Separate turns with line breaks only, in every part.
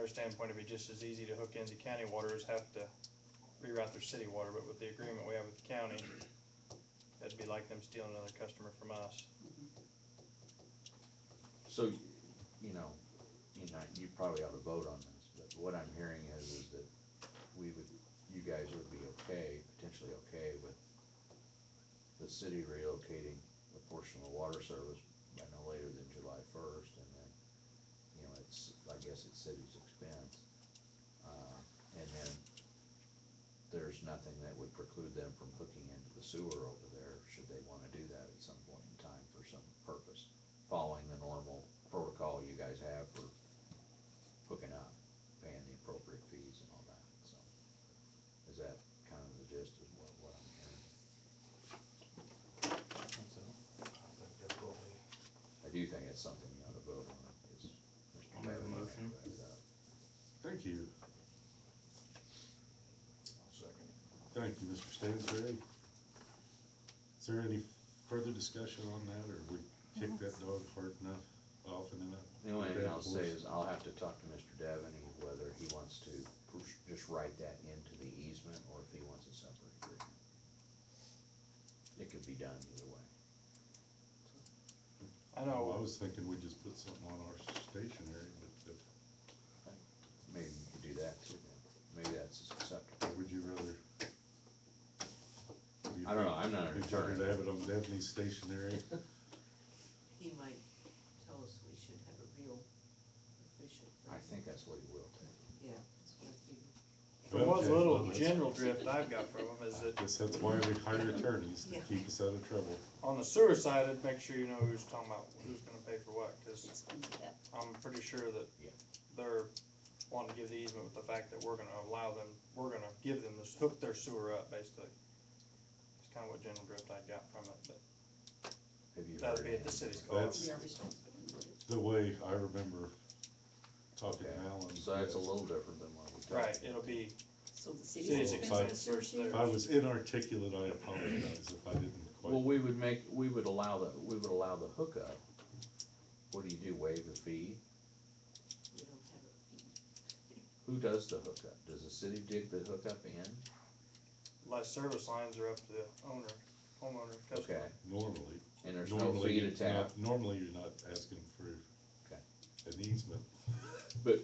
our standpoint, it'd be just as easy to hook into county water as have to reroute their city water, but with the agreement we have with the county, that'd be like them stealing another customer from us.
So, you know, you know, you probably ought to vote on this, but what I'm hearing is, is that we would, you guys would be okay, potentially okay with the city relocating a portion of the water service by no later than July first, and then, you know, it's, I guess it's city's expense. Uh, and then there's nothing that would preclude them from hooking into the sewer over there, should they wanna do that at some point in time for some purpose following the normal protocol you guys have for hooking up, paying the appropriate fees and all that, so. Is that kind of the gist of what, what I'm hearing? I do think it's something you ought to vote on, is. Mr.
I'll make a
Taylor
motion.
brought it up.
Thank you.
Second.
Thank you, Mr. Stansberry. Is there any further discussion on that, or we kicked that dog hard enough, often enough?
The only thing
Okay,
I'll
of
say
course.
is I'll have to talk to Mr. Devaney whether he wants to push- just write that into the easement or if he wants a separate agreement. It could be done either way.
I
Oh, I
know,
was thinking we just put something on our stationery, but if-
Maybe you could do that too, maybe that's acceptable.
would you rather?
I don't know, I'm not an
You'd rather
attorney.
have it on Daphne's stationery?
He might tell us we should have a real official.
I think that's what he will take.
Yeah, that's what I figured.
from what little
Okay.
general drift I've got from them is that
Guess that's why we hire attorneys, to
Yeah.
keep us out of trouble.
on the sewer side, I'd make sure you know who's talking about, who's gonna pay for what, cause
It's gonna be that.
I'm pretty sure that
Yeah.
they're wanting to give the easement with the fact that we're gonna allow them, we're gonna give them this, hook their sewer up, basically. It's kinda what general drift I got from it, but
Have you
that'd
heard
be at
anything?
the city's cost.
That's-
We are responsible for it.
The way I remember talking to
Okay.
Alan.
So that's a
yes.
little different than what we talked.
Right, it'll be,
So the
City's
city's
expense
expense
first
this year?
If I was inarticulate, I apologize if I didn't quite.
Well, we would make, we would allow the, we would allow the hookup. What do you do, waive the fee?
We don't have a fee.
Who does the hookup? Does the city dig the hookup in?
less service lines are up to the owner, homeowner,
Okay,
customer.
Normally.
and there's no
normally
fee
you're
to tap,
not- Normally, you're not asking for
Okay.
an easement.
but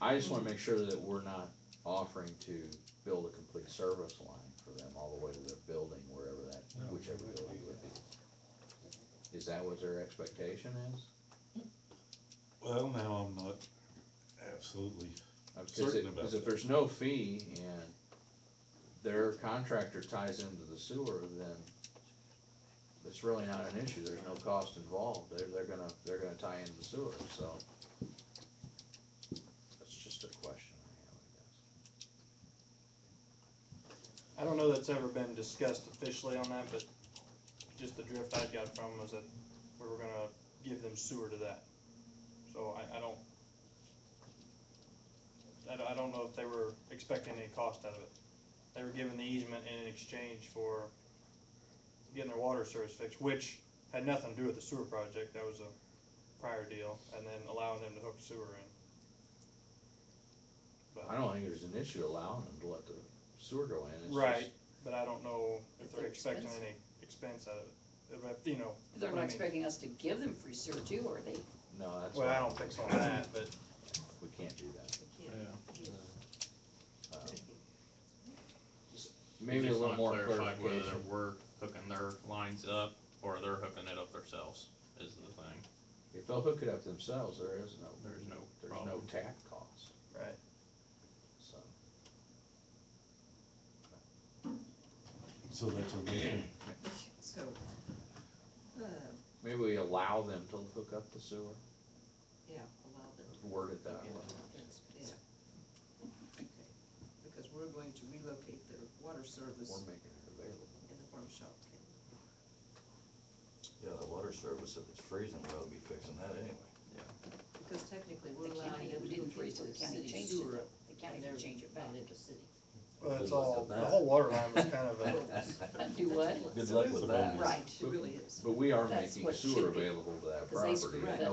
I just wanna make sure that we're not offering to build a complete service line for them all the way to their building, wherever that,
No.
whichever building would be. Is that what their expectation is?
Well, now I'm not absolutely,
Uh, Cause
certain
it,
about
cause if
that.
there's no fee and their contractor ties into the sewer, then it's really not an issue, there's no cost involved, they're, they're gonna, they're gonna tie into the sewer, so. That's just a question I
I don't know that's ever been discussed officially on that, but just the drift I got from was that we were gonna give them sewer to that. So I, I don't, I don't, I don't know if they were expecting any cost out of it. They were given the easement in exchange for getting their water service fixed, which had nothing to do with the sewer project, that was a prior deal, and then allowing them to hook sewer in.
guess. I don't think there's an issue allowing them to let the sewer go in, it's
Right,
just,
but I don't know if
If
they're
they're
expecting
expensive.
any expense out of it, If- you know.
They're
what I
not
mean.
expecting us to give them free sewer too, are they?
no, that's.
Well,
why
I don't think so on that, but
We can't do that.
We can't.
Um, Maybe a little more
clarified Whether
clarification.
we're hooking their lines up or they're hooking it up themselves is the thing.
If they'll hook it up themselves, there is no.
There's no
There's no
problem.
tap cost,
right.
so.
so that's okay.
So, uh,
Maybe we allow them to hook up the sewer,
yeah, allow them.
word it that way.
That's- yeah. Okay. Because we're going to relocate the water service
We're making it available.
in the farm shop. okay?
Yeah, the water service, if it's freezing, we'll be fixing that anyway.
Because technically, we're
The
allowing
county-
them
we
to
didn't
hook
freeze
into
it,
the
the county
city
changed it.
sewer.
The county
and they're
can change it back.
bound into city.
Well,
Good
it's
luck
all,
with
the
that.
whole water line was kind of a,
Do what?
Good
So
luck
it is
with
a
that.
bonus.
Right.
It really is.
But we are
That's
making
what should
sewer
be.
available to that
Because they
property
screwed
at
up.
no